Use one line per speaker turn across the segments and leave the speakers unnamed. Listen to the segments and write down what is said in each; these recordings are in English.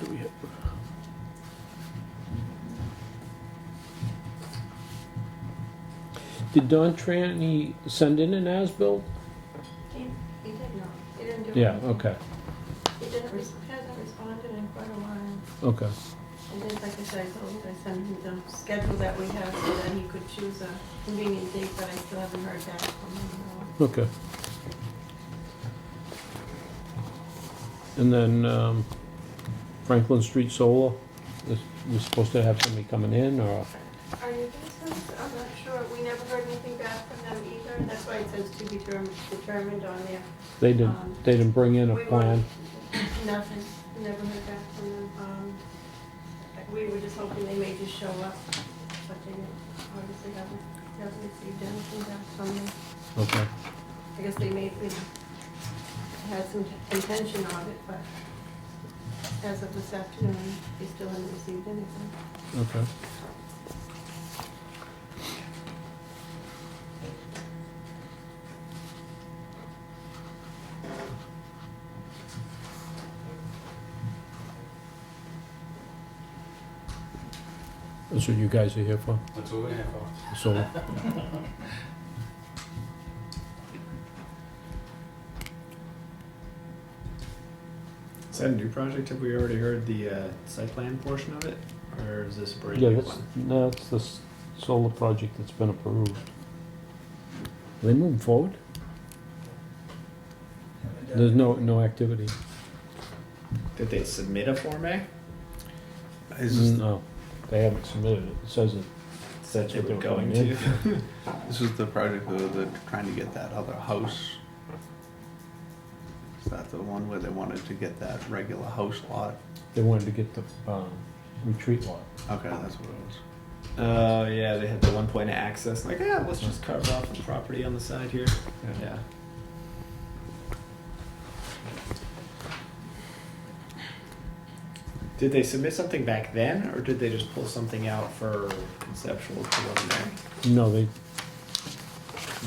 do we have? Did Don Tranny send in an as-built?
He, he did not, he didn't do it.
Yeah, okay,
He didn't, res- hasn't responded in quite a while.
okay.
And then, like I said, I told, I sent him the schedule that we have, so that he could choose a convenient date, but I still haven't heard back from him. no.
Okay. And then um, Franklin Street Solar, is- we're supposed to have somebody coming in, or,
Are you guys, I'm not sure, we never heard anything back from them either, and that's why it says to be term- determined on um, there.
they didn't, they didn't bring in a
We
plan?
weren't- Nothing, never heard back from them. Um, We were just hoping they may just show up, but they obviously haven't, haven't received anything back from them.
Okay,
I guess they may, they had some intention of it, but as of this afternoon, they still haven't received anything.
okay. That's what you guys are here for,
That's what we have.
solar?
Is that a new project? Have we already heard the uh, site plan portion of it? Or is this a brand
Yeah,
new
that's,
one?
no, that's the s- solar project that's been approved. Are they moving forward? There's no, no activity.
Did they submit a Form A?
Is this,
Mm, No, they haven't submitted it. It says it.
Said
That's
they
what
were
they were
going
going
to.
this is the project though, they're trying to get that other house. Is that the one where they wanted to get that regular house lot?
They wanted to get the, um, retreat lot.
Okay, that's what it
Oh, yeah, they had the one point of access. Like, yeah, let's just carve off the property on the side here.
was.
Yeah. Did they submit something back then, or did they just pull something out for conceptual preliminary?
No, they,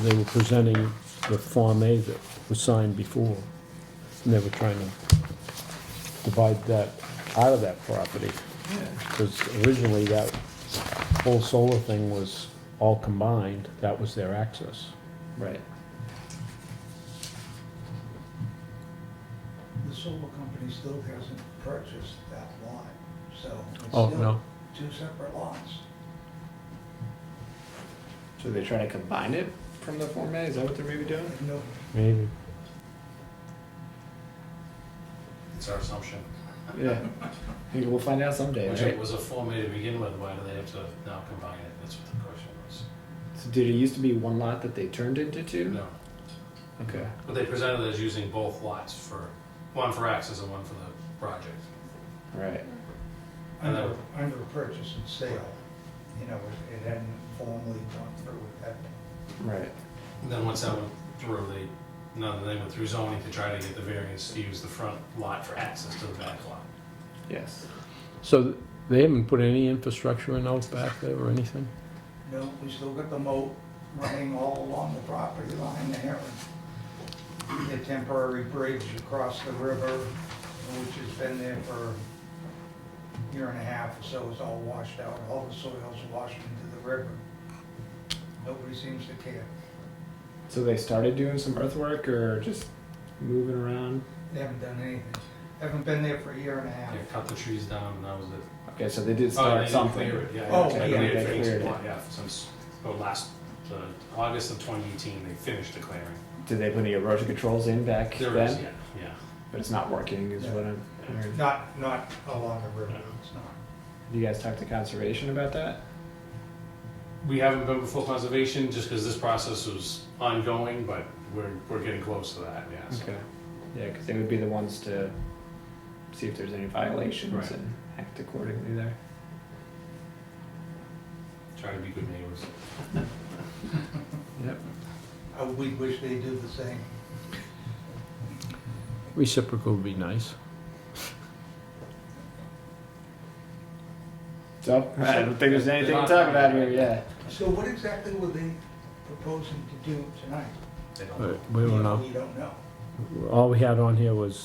they were presenting the Form A that was signed before. And they were trying to divide that out of that property.
Yeah.
Because originally that whole solar thing was all combined, that was their access.
Right.
The solar company still hasn't purchased that lot, so it's
Oh,
still
no.
two separate lots.
So they're trying to combine it from the Form A? Is that what they're maybe doing?
No,
Maybe.
It's our assumption.
Yeah. I think we'll find out someday.
Which
right?
it was a Form A to begin with, why do they have to now combine it? That's what the question was.
So did it used to be one lot that they turned into two?
No,
Okay.
but they presented it as using both lots for, one for access and one for the project.
Right.
And
under,
that-
under purchase and sale, you know, it- it hadn't formally gone through with that.
Right.
And then once that went through, they, no, they went through zoning to try to get the variance to use the front lot for access to the back lot.
Yes.
So th- they haven't put any infrastructure in out back there or anything?
No, we still got the moat running all along the property line there. and The temporary bridge across the river, which has been there for a year and a half or so, is all washed out. All the soil's washed into the river. Nobody seems to care.
So they started doing some earthwork or just moving around?
They haven't done anything. Haven't been there for a year and a half.
They cut the trees down and that was it.
Okay, so they did
Oh,
start
they didn't
something.
clear it, Yeah,
Oh,
yeah, they
yeah.
cleared it,
They
finished
cleared
the
it.
lot, yeah, since, oh, last, uh, August of twenty eighteen, they finished the clearing.
Did they put any erosion controls in back
There
then?
is, yeah, yeah.
But it's not working, is
Yeah.
what I'm hearing.
Not, not along the river, it's not.
You guys talked to conservation about that?
We haven't been before conservation just because this process was ongoing, but we're, we're getting close to that, yes.
Okay. Yeah, because they would be the ones to see if there's any violations
Right.
and act accordingly there.
Try to be good neighbors.
Yep.
Uh, We wish they do the same.
Reciprocal would be nice.
So I don't think there's anything to talk about here. Yeah.
So what exactly were they proposing to do tonight?
They don't.
We don't know.
We don't know.
All we had on here was